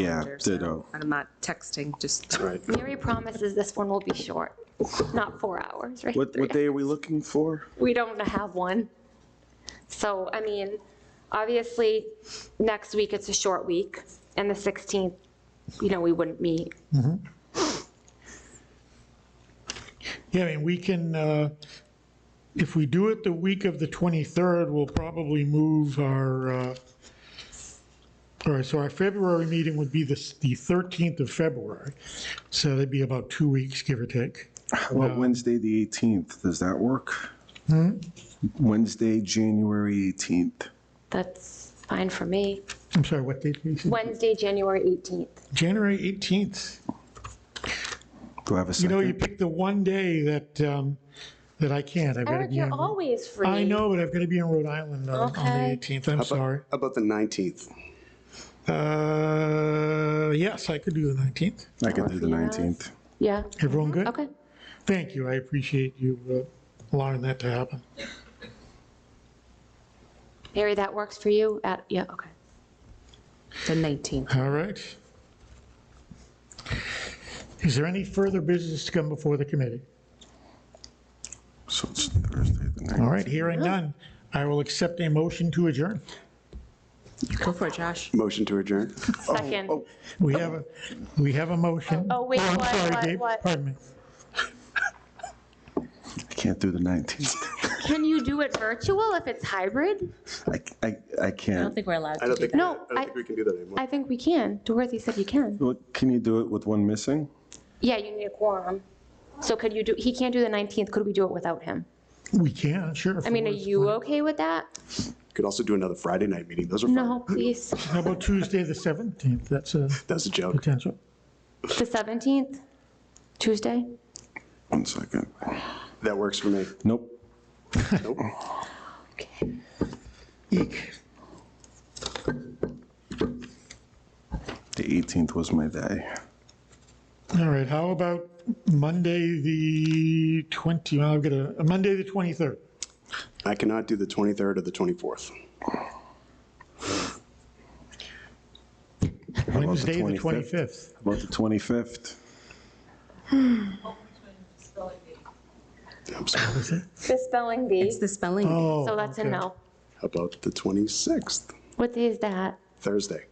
Yeah, calendar, so ditto. I'm not texting, just. Right. Mary promises this one will be short, not four hours, right? What, Three what day are we looking for? we don't have one. So, I mean, obviously, next week it's a short week, and the 16th, you know, we wouldn't meet. Yeah, I mean, we can, uh, if we do it the week of the 23rd, we'll probably move our, uh, all right, so our February meeting would be the s- the 13th of February. So that'd be about two weeks, give or take. How about Wednesday, the 18th? Does that work? Wednesday, January 18th. That's fine for me. I'm sorry, what date? did you say? Wednesday, January 18th. January 18th. Do I have a You second? know, you picked the one day that, um, that I can't. I've got to Eric, be Oh, you're on. always free. I know, but I've got to be in Rhode Island on on Okay. the 18th. I'm sorry. How About the 19th. Uh, yes, I could do the 19th. I can do the 19th. Yeah, Everyone good? Mm-hmm. okay. Thank you, I appreciate you uh, allowing that to happen. Mary, that works for you at, yeah, okay. The 19th. All right. Is there any further business to come before the committee? So it's Thursday, the 19th. All right, hearing none, I will accept a motion to adjourn. Go for it, Josh. Motion to adjourn. Second. We have, a we have a motion. Oh, wait, I'm what, sorry, what, Dave. what? Pardon me. I can't do the 19th. Can you do it virtual if it's hybrid? I, I, I I don't can't. think we're allowed I to don't do think, that. I No, don't I- think we can do that anymore. I think we can. Dorothy said you can. Look, Can you do it with one missing? Yeah, you need a quorum. So could you do, he can't do the 19th, could we do it without him? We can, sure. I mean, are you okay with that? Could also do another Friday night meeting. Those are fun. No, please. How about Tuesday, the 17th? That's a That's a joke. potential. The 17th, Tuesday? One second. That works for me. Nope. Nope. Eek. The 18th was my day. All right, how about Monday, the 20, well, I've got a, Monday, the 23rd. I cannot do the 23rd or the 24th. about the Wednesday, the 25th? 25th. How About the 25th. I'm sorry. The spelling bee. It's the spelling bee. Oh, So that's a okay. no. How About the 26th, What day is that? Thursday.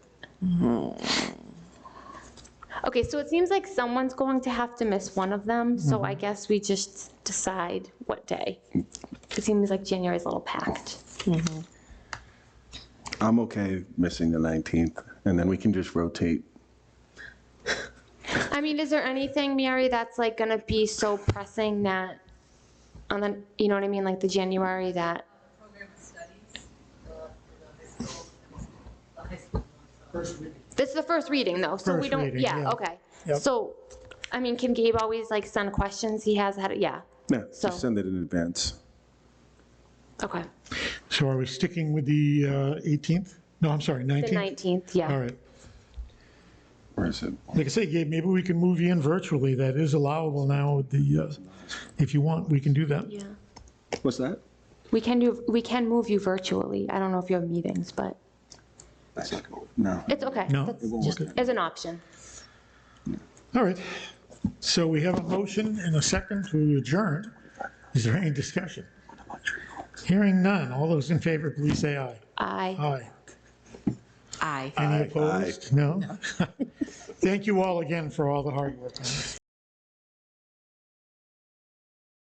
Okay, so it seems like someone's going to have to miss one of them, so I guess we just decide what day. It seems like January's a little packed. I'm okay missing the 19th, and then we can just rotate. I mean, is there anything, Mary, that's like gonna be so pressing that, on the, you know what I mean, like the January that, program studies, the, the high school, the high school. this is the first reading though, so we First don't, reading, yeah, yeah. okay. Yep. So, I mean, can Gabe always like send questions he has had, yeah, Yeah, So- just send it in advance. okay. So are we sticking with the uh, 18th? No, I'm sorry, The 19th? 19th, yeah. All right. Where is it? Like I say, Gabe, maybe we can move you in virtually. That is allowable now with the, uh, if you want, we can do that. Yeah. What's that? We can do, we can move you virtually. I don't know if you have meetings, but That's not going. No. it's okay. No? That's It won't just work. as an option. All right. So we have a motion and a second to adjourn. Is there any discussion? Hearing none. All those in favor, please say aye. I. Aye. Aye. Any opposed? No? Thank you all again for all the hard work on this.